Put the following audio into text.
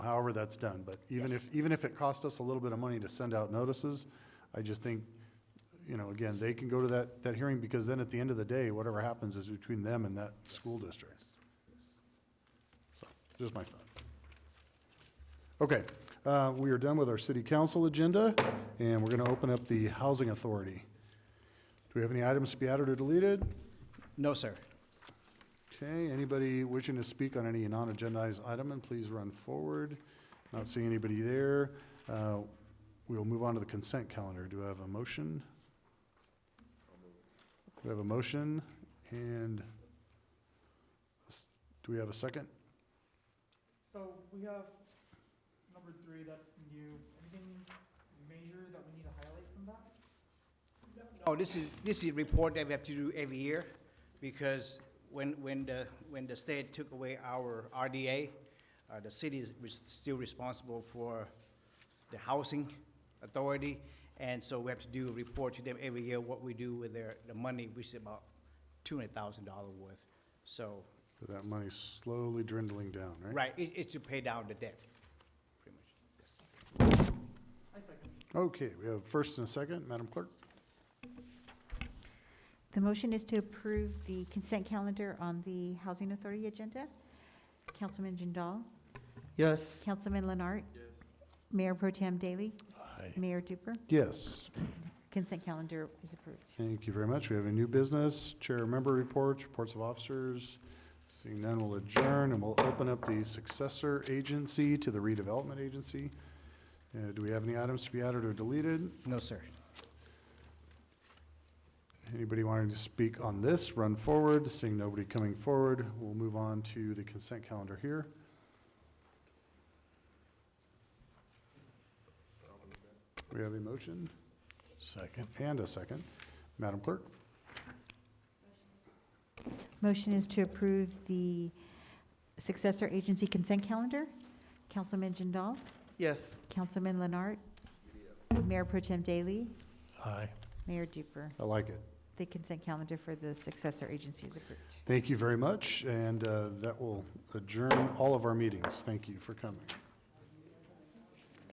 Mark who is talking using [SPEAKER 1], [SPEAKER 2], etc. [SPEAKER 1] however that's done. But even if, even if it cost us a little bit of money to send out notices, I just think, you know, again, they can go to that, that hearing because then at the end of the day, whatever happens is between them and that school district. So, just my thought. Okay, uh, we are done with our city council agenda, and we're gonna open up the housing authority. Do we have any items to be added or deleted?
[SPEAKER 2] No, sir.
[SPEAKER 1] Okay, anybody wishing to speak on any non-agendized item, and please run forward. Not seeing anybody there. Uh, We will move on to the consent calendar. Do I have a motion? Do we have a motion? And s- do we have a second?
[SPEAKER 3] So we have number three, that's new. Anything major that we need to highlight from that?
[SPEAKER 2] No, Oh, this is, this is a report that we have to do every year, because when, when the, when the state took away our RDA, uh, the city is was still responsible for the housing authority, and so we have to do a report to them every year, what we do with their, the money, which is about two hundred thousand dollar worth. So,
[SPEAKER 1] That money's slowly dwindling down, right?
[SPEAKER 2] right, it, it's to pay down the debt, pretty much.
[SPEAKER 3] I second.
[SPEAKER 1] Okay, we have first and a second. Madam Clerk?
[SPEAKER 4] The motion is to approve the consent calendar on the Housing Authority agenda. Councilman Jindal?
[SPEAKER 5] Yes.
[SPEAKER 4] Councilman Leonard? Yes. Mayor Pro Tem Daly? Mayor Duper?
[SPEAKER 1] Yes.
[SPEAKER 4] Consent calendar is approved.
[SPEAKER 1] Thank you very much. We have a new business, chair member reports, reports of officers. Seeing none, we'll adjourn and we'll open up the successor agency to the redevelopment agency. Uh, do we have any items to be added or deleted?
[SPEAKER 2] No, sir.
[SPEAKER 1] Anybody wanting to speak on this, run forward. Seeing nobody coming forward, we'll move on to the consent calendar here. We have a motion
[SPEAKER 5] Second.
[SPEAKER 1] and a second. Madam Clerk?
[SPEAKER 4] Motion is to approve the successor agency consent calendar. Councilman Jindal?
[SPEAKER 5] Yes.
[SPEAKER 4] Councilman Leonard? Mayor Pro Tem Daly?
[SPEAKER 5] Aye.
[SPEAKER 4] Mayor Duper?
[SPEAKER 1] I like it.
[SPEAKER 4] The consent calendar for the successor agency is approved.
[SPEAKER 1] Thank you very much, and uh, that will adjourn all of our meetings. Thank you for coming.